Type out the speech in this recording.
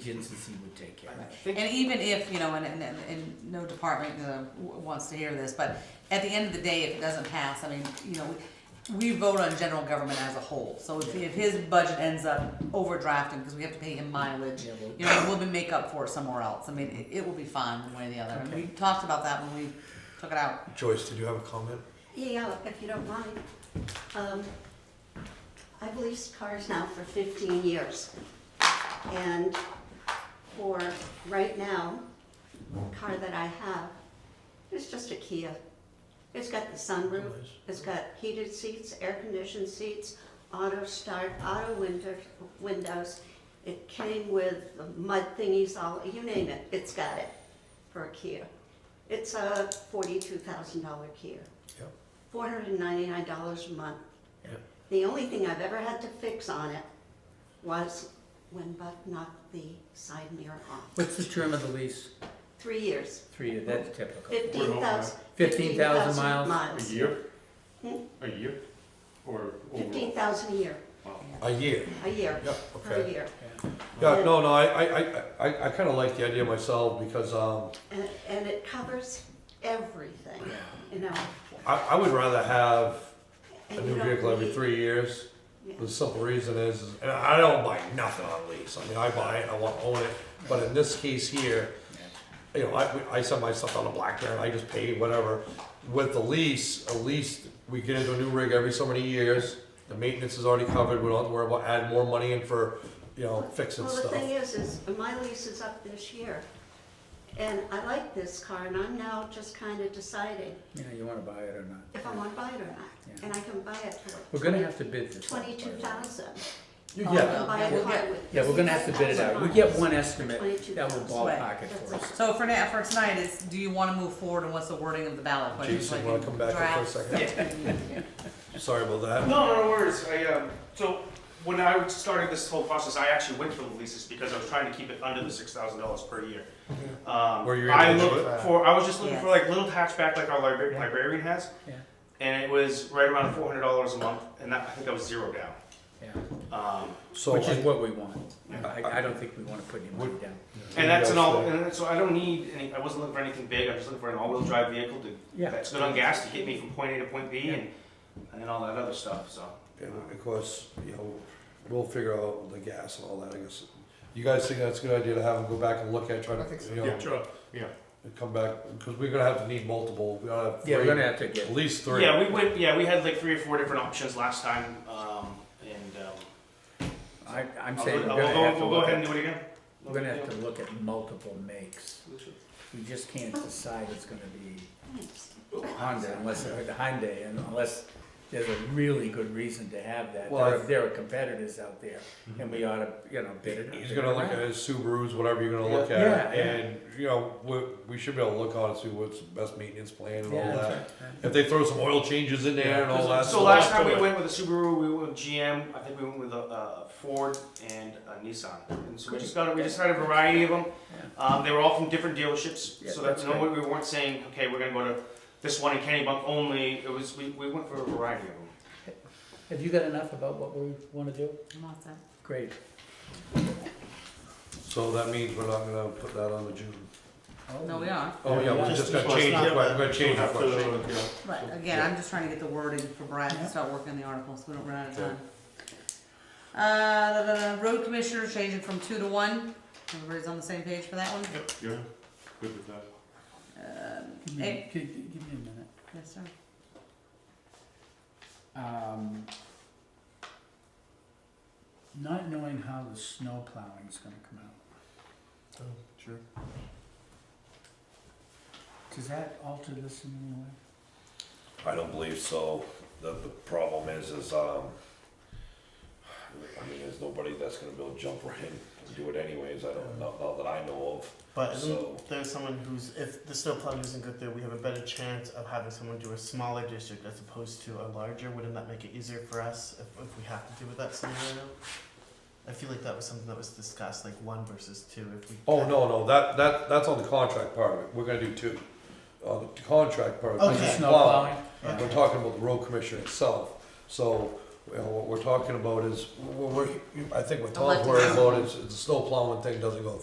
contingency would take care of. I it. think- And even if, you know, and, and, and- and no department uh, w- wants to hear this, but at the end of the day, if it doesn't pass, I mean, you know, we vote on general government as a whole, so if, if his budget ends up overdrafting, because we have to pay him mileage, Yeah, well- you know, we'll be make up for it somewhere else, I mean, it, it will be fine one way or the other, and we talked about that when we took it out. Joyce, did you have a comment? Yeah, if you don't mind. Um, I've leased cars now for 15 years. And for right now, the car that I have, it's just a Kia. It's got the sunroof, Nice. it's got heated seats, air-conditioned seats, auto start, auto winter, windows. It came with the mud thingies, all, you name it, it's got it for a Kia. It's a $42,000 Kia Yep. four hundred and ninety-nine dollars a month. Yeah. The only thing I've ever had to fix on it was when Buck knocked the side mirror off. What's the term of the lease? Three years, Three, years. that's typical. fifteen thousand. 15,000 miles. A year? Hmm? A year? Or overall? Fifteen thousand a year, Wow. A year. a year, Yep, per okay. year. Yeah, no, no, I, I, I- I, I kinda like the idea myself because, um, And, and it covers everything, you know. I, I would rather have a and you new don't vehicle every need- three years. yeah. The simple reason is, is- and I don't buy nothing on lease. I mean, I buy it, I want to own it, but in this case here, you know, I, we- I send my stuff on a black there and I just pay whatever. With the lease, at least we get into a new rig every so many years. The maintenance is already covered. We don't have to worry about adding more money in for, you know, fixing Well, the stuff. thing is, is my lease is up this year. And I like this car and I'm now just kind of deciding Yeah, you wanna buy it or not. if I want to buy it or not. Yeah. And I can buy it for We're gonna have to bid this. out, by the way. Twenty-two thousand. Yeah, Buy a We'll car get- with. Yeah, we're gonna have to bid it out. We get one estimate that will 22,000. ballpark it for us. So for now, for tonight, it's, do you wanna move forward, and what's the wording of the ballot question? Jason, Like, you wanna come back up for a draft? second? Sorry about that. No, no, no worries. I, um, so when I started this whole process, I actually went for the leases because I was trying to keep it under the six thousand dollars per year. Um, Were you able I to do looked it? for. I was just looking for Yes. like little hatchback, like our libra- librarian has. Yeah. And it was right around four hundred dollars a month, and that I think I was zero down. Yeah, Um, So which is I- what we want. I, I don't think we wanna put any money down. and that's an all. Yeah. And that's- so I don't need any. I wasn't looking for anything big. I was looking for an all-wheel drive vehicle to, Yeah. that's good on gas to get me from point A to point B, and and all that other stuff. So. And of course, you know, we'll figure out the gas and all that, I guess. You guys think that's a good idea to have them go back and look at, try to, you know, sure, yeah. and come back, because we're gonna have to need multiple, we gotta have Yeah, we're gonna three, have to get, at least three. Yeah, we went. Yeah, we had like three or four different options last time, um, and um, I, I'm I'll saying go- we're I'll gonna go- have to We'll go look ahead and at, do it again. we're gonna have to look at multiple makes. We just can't decide it's gonna be Honda unless, or the Hyundai, and unless there's a really good reason to have that. There Well, are, I- there are competitors out there, and we oughta, you know, bid it. He's gonna look at his Subarus, whatever you're gonna look Yeah. at, Yeah, yeah. and, you know, we, we should be able to look on and see what's the best maintenance plan and all Yeah, that. that's right. If they throw some oil changes in there and all that. So stuff. last time we went with a Subaru, we went with GM. I think we went with a, a Ford and a Nissan. And so we just got we just had a variety of them. Um, they were all from different dealerships, Yeah, so that's that's no we weren't saying okay we're gonna go to this one in Kennebunk only. It was we, we went for a variety of them. Have you got enough about what we wanna do? I'm all set. Great. So that means we're not gonna put that on the June. No, we are. Oh, yeah, we're Just just this gonna last change, night. it. we're gonna change the Have to, question. uh, yeah. Right, again, I'm just trying to get the wording for Brad to start working on the article, so we don't run out of time. Uh, da, da, da, road commissioner changing from two to one, everybody's on the same page for that one? Yep, yeah, good with that. Give me, Hey. give, give me a minute. Yes, sir. Um, not knowing how the snow plowing is gonna come out, Oh, Sure. does that alter this in any way? I don't believe so. The, the problem is, is, um, I mean, there's nobody that's gonna be able to jump right in and do it anyways, I don't, not, not that I know But So- isn't there someone who's, if the snowplow doesn't go through, we have a better chance of having someone do a smaller district as opposed to a larger? Wouldn't that make it easier for us if, if we have to deal with that scenario? I feel like that was something that was discussed, like one versus two, if we. Oh, no, no, that, that, that's on the contract part of it, we're gonna do two. On the contract part. Okay. is Snow plowing. plowing? We're talking about the road commissioner itself, so Well, what we're talking about is, we're, we're- I think Elected what Tom's worried people. about is, is the snow plowing thing doesn't go